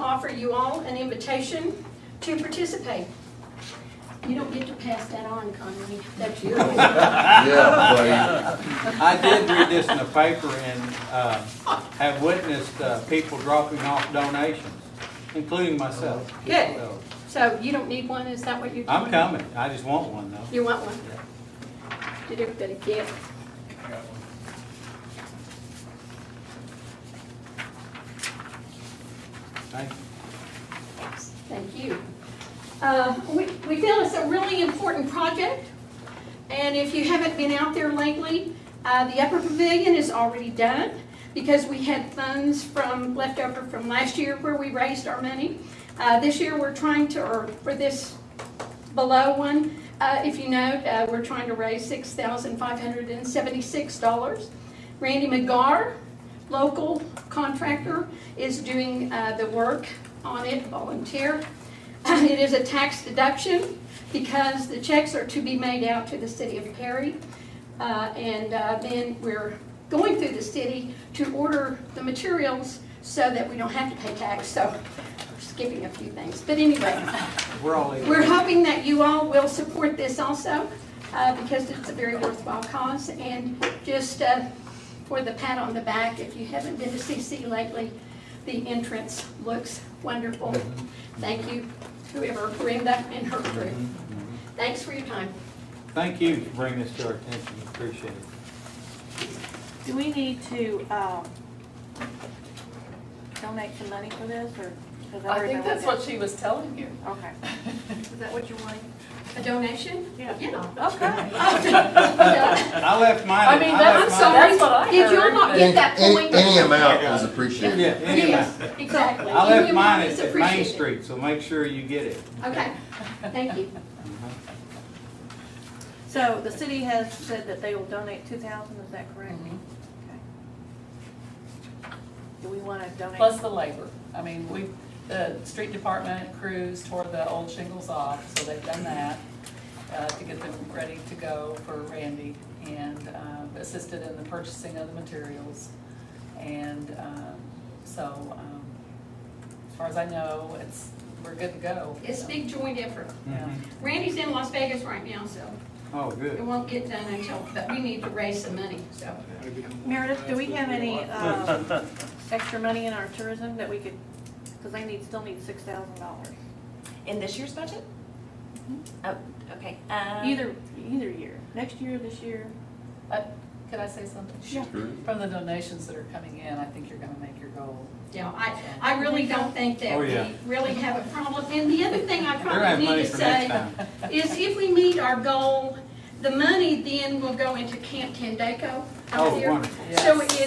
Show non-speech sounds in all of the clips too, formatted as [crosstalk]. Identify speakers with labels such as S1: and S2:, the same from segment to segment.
S1: offer you all an invitation to participate. You don't get to pass that on, Connie. That's
S2: [laughs]
S1: yours.
S3: Yeah,
S2: I did read this in the paper and uh, have witnessed uh, people dropping off donations, including myself.
S1: Good.
S2: So,
S1: So you don't need one, is that what you're doing?
S2: I'm coming. I just want one though.
S1: You want one? Did everybody get? it?
S2: Thank you.
S1: Thank you. Uh, We we feel it's a really important project, and if you haven't been out there lately, uh, the upper pavilion is already done because we had funds from, left over from last year where we raised our money. Uh, This year, we're trying to, or for this below one, uh, if you note, uh, we're trying to raise $6,576. Randy McGar, local contractor, is doing uh, the work on it, volunteer. Um, It is a tax deduction because the checks are to be made out to the city of Perry. Uh, And uh, then we're going through the city to order the materials so that we don't have to pay tax. So skipping a few things, but anyway.
S2: We're all eating.
S1: We're hoping that you all will support this also, uh, because it's a very worthwhile cause. And just uh, for the pat on the back, if you haven't been to CC lately, the entrance looks wonderful. Thank you, whoever, Brenda and her crew. Thanks for your time.
S2: Mm-hmm. Thank you for bringing this to our attention. Appreciate it.
S4: Do we need to, um, donate some money for this, or? is that
S5: I
S4: where
S5: think
S4: they
S5: that's
S4: went
S5: what she was telling you.
S4: down? Okay.
S1: Is that what you want? A donation?
S4: Yeah.
S1: Yeah.
S2: [laughs]
S4: Okay.
S2: I left mine.
S5: I mean, that-
S2: left
S5: I'm
S2: mine-
S5: sorry. That's what I
S1: Did you all not
S5: heard,
S1: get that
S3: but any,
S1: point?
S3: any amount is appreciated.
S2: Yeah, any amount.
S1: Yes, Exactly.
S2: I
S1: Any
S2: left
S1: amount
S2: mine
S1: is
S2: at- at Main
S1: appreciated.
S2: Street, so make sure you get it. Mm-hmm.
S1: Okay, thank you.
S4: So the city has said that they will donate two thousand, is that correct? Okay. Do we wanna donate?
S5: Plus the labor. I mean, we, the street department crews tore the old shingles off, so they've done that uh, to get them ready to go for Randy and um, assisted in the purchasing of the materials. And um, so, um, as far as I know, it's, we're good to go.
S1: It's a big joint effort.
S5: Yeah.
S1: Randy's in Las Vegas right now, so
S2: Oh,
S1: it
S2: good.
S1: won't get done until, but we need to raise some money, so.
S4: Meredith, do we have any, um, extra money in our tourism that we could, cause they need, still need six thousand dollars,
S6: In this year's budget? Oh, okay. Um,
S4: either, either year, next year, this year?
S5: Uh, Could I say something?
S4: Sure.
S5: From the donations that are coming in, I think you're gonna make your goal.
S1: Yeah, I, I really don't think that
S2: Oh,
S1: we
S2: yeah.
S1: really have a problem. And the other thing I
S2: They're having
S1: probably
S2: money
S1: need
S2: for
S1: to
S2: next
S1: say [laughs]
S2: time.
S1: is if we meet our goal, the money then will go into Camp Tendaco out
S2: Oh,
S1: there.
S2: wonderful.
S1: So
S5: Yes.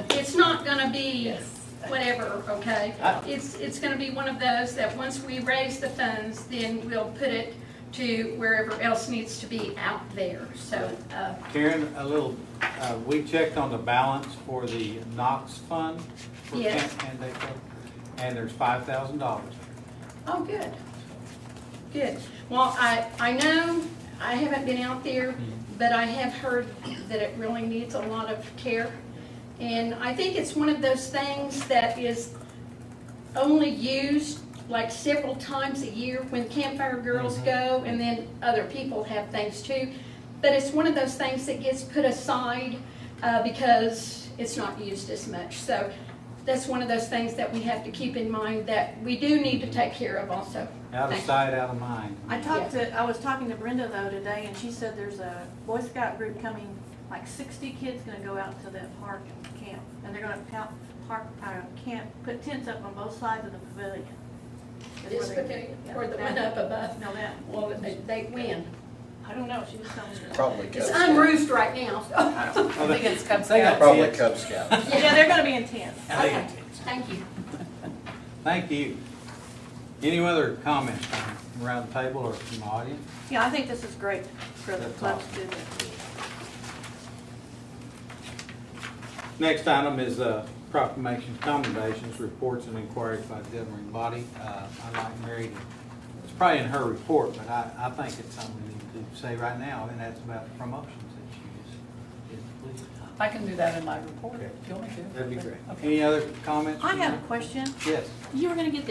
S1: it's, it's not gonna be
S5: Yes.
S1: whatever, okay?
S2: I-
S1: It's, it's gonna be one of those that once we raise the funds, then we'll put it to wherever else needs to be out there, so, uh,
S2: Karen, a little, uh, we checked on the balance for the Knox Fund. for
S1: Yes.
S2: Camp Candaco, And there's five thousand dollars.
S1: Oh, good. Good. Well, I, I know, I haven't been out there, but I have heard that it really needs a lot of care. And I think it's one of those things that is only used like several times a year when campfire girls
S2: Mhm.
S1: go and then other people have things too. But it's one of those things that gets put aside uh, because it's not used as much. So that's one of those things that we have to keep in mind that we do need to take care of also.
S2: Out of
S1: Thank you.
S2: sight, out of mind.
S4: I talked to, I was talking to Brenda though today, and she said there's a Boy Scout group coming, like sixty kids gonna go out to that park and camp. And they're gonna count, park, uh, camp, put tents up on both sides of the pavilion. Is
S1: This
S4: where they-
S1: particular,
S4: yeah.
S1: or the one up above,
S4: No, that,
S1: well, they- they win.
S4: I don't know, she was telling me.
S3: Probably
S1: It's unroofed right now, [laughs] so,
S5: I think it's Cub
S2: They got
S5: Scouts.
S3: Probably
S2: tits.
S3: Cub Scout.
S4: Yeah, they're gonna be in tents.
S2: And they got
S1: Okay.
S2: tits.
S1: thank you.
S2: Thank you. Any other comments from around the table or from the audience?
S4: Yeah, I think this is great for the
S2: That's
S4: club
S2: awesome.
S4: students.
S2: Next item is uh, proclamations, commendations, reports, and inquiries by the governing body. Uh, I'd like Mary to, it's probably in her report, but I, I think it's something we need to say right now, and that's about the promotions that she just did. Please.
S5: I can do that in my report, if you want me to.
S2: That'd be great.
S5: Okay.
S2: Any other comments?
S4: I have a question.
S2: Yes.
S4: You were gonna get the